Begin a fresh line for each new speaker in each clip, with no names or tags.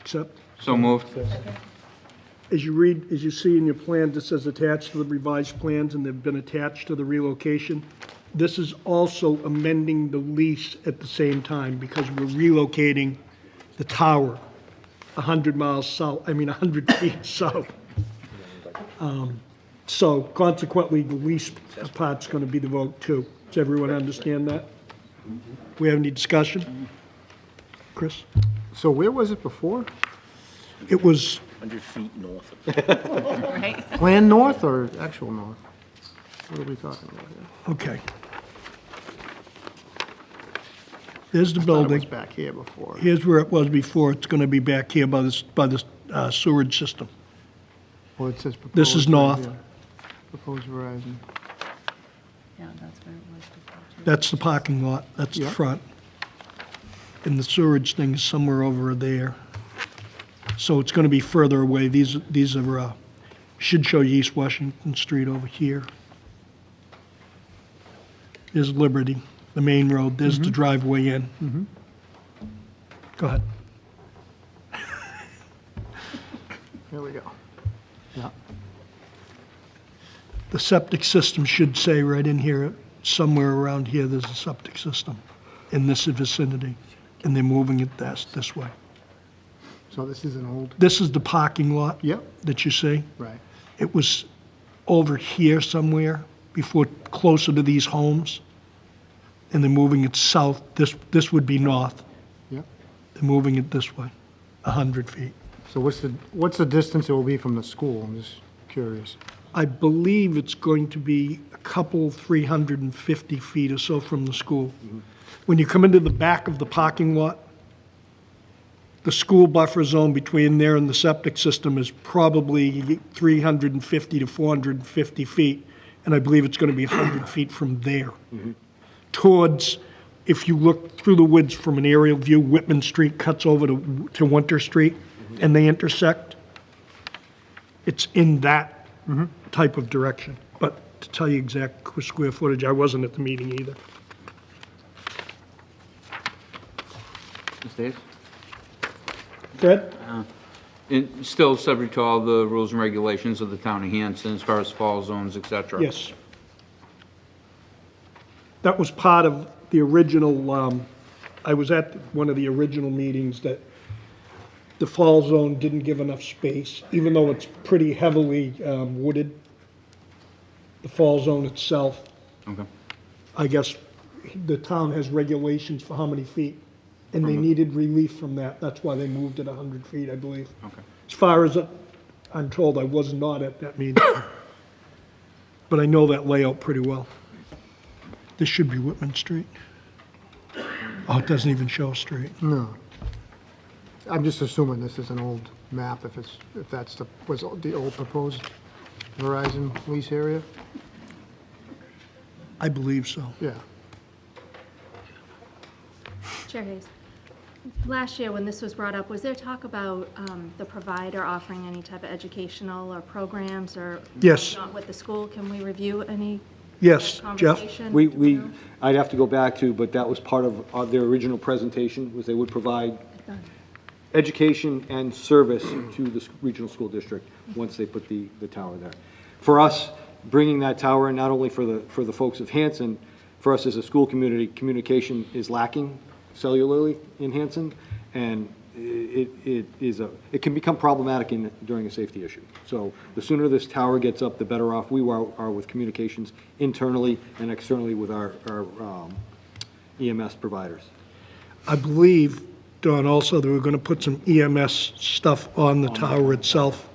accept?
So moved.
As you read, as you see in your plan, this says attached to the revised plans, and they've been attached to the relocation. This is also amending the lease at the same time, because we're relocating the tower 100 miles south, I mean, 100 feet south. Um, So consequently, the lease part's going to be the vote, too. Does everyone understand that? We have any discussion? Chris?
So where was it before?
It was
100 feet north.
right?
Plan north or actual north? What are we talking about here?
Okay. There's the
Thought it was
building.
back here before.
Here's where it was before. It's going to be back here by this, by this uh, sewerage system.
Well, it says proposed.
This is
right
north.
here. Proposed Verizon.
Yeah, that's where it was before.
That's the parking lot. That's the
Yeah.
front. And the sewerage thing is somewhere over there. So it's going to be further away. These, these are, uh, should show you East Washington Street over here. There's Liberty, the main road. There's the driveway in. Go ahead.
Here we go. Yeah.
The septic system should say right in here, somewhere around here, there's a septic system in this vicinity, and they're moving it this, this way.
So this is an old,
This is the parking lot.
Yep.
That you see.
right.
It was over here somewhere before, closer to these homes, and they're moving it south. This, this would be north.
Yep.
They're moving it this way, 100 feet.
So what's the, what's the distance it will be from the school? I'm just curious.
I believe it's going to be a couple, 350 feet or so from the school. When you come into the back of the parking lot, the school buffer zone between there and the septic system is probably 350 to 450 feet, and I believe it's going to be 100 feet from there. Towards, if you look through the woods from an aerial view, Whitman Street cuts over to to Winter Street, and they intersect it's in that type of direction. But to tell you exact qu- square footage, I wasn't at the meeting either.
Ms. Davis?
Fred?
And still subject to all the rules and regulations of the town of Hanson as far as fall zones, et cetera?
Yes. That was part of the original, um, I was at one of the original meetings that the fall zone didn't give enough space, even though it's pretty heavily um, wooded. The fall zone itself,
Okay.
I guess the town has regulations for how many feet, and they needed relief from that. That's why they moved it 100 feet, I believe.
Okay.
As far as I'm told, I was not at that meeting. But I know that layout pretty well. This should be Whitman Street. Oh, it doesn't even show a street.
No. I'm just assuming this is an old map, if it's, if that's the, was the old proposed Verizon lease area?
I believe so.
Yeah.
Chair Hayes, last year when this was brought up, was there talk about um, the provider offering any type of educational or programs or?
Yes.
Not with the school, can we review any
Yes, Jeff?
conversation?
We, we, I'd have to go back to, but that was part of uh, their original presentation, was they would provide education and service to the s- regional school district once they put the, the tower there. For us, bringing that tower in, not only for the, for the folks of Hanson, for us as a school community, communication is lacking cellularly in Hanson, and i- it, it is a, it can become problematic in, during a safety issue. So the sooner this tower gets up, the better off we are, are with communications internally and externally with our, our um, EMS providers.
I believe, Don, also, that we're going to put some EMS stuff on the tower itself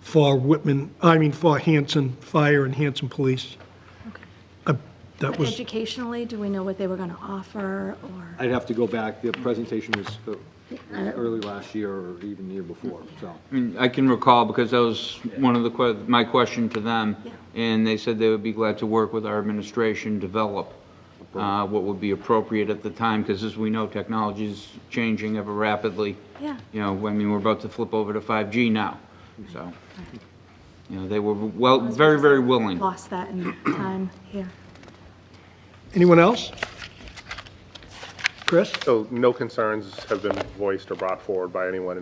for Whitman, I mean, for Hanson Fire and Hanson Police. I- That was,
Educationally, do we know what they were going to offer or?
I'd have to go back, the presentation was uh, early last year or even the year before, so.
I mean, I can recall because that was one of the, que- my question to them. And they said they would be glad to work with our administration, develop uh, what would be appropriate at the time, because as we know, technology is changing ever rapidly.
Yeah.
You know, I mean, we're about to flip over to 5G now, so. You know, they were well, very, very willing.
Lost that in time here.
anyone else? Chris?
So no concerns have been voiced or brought forward by anyone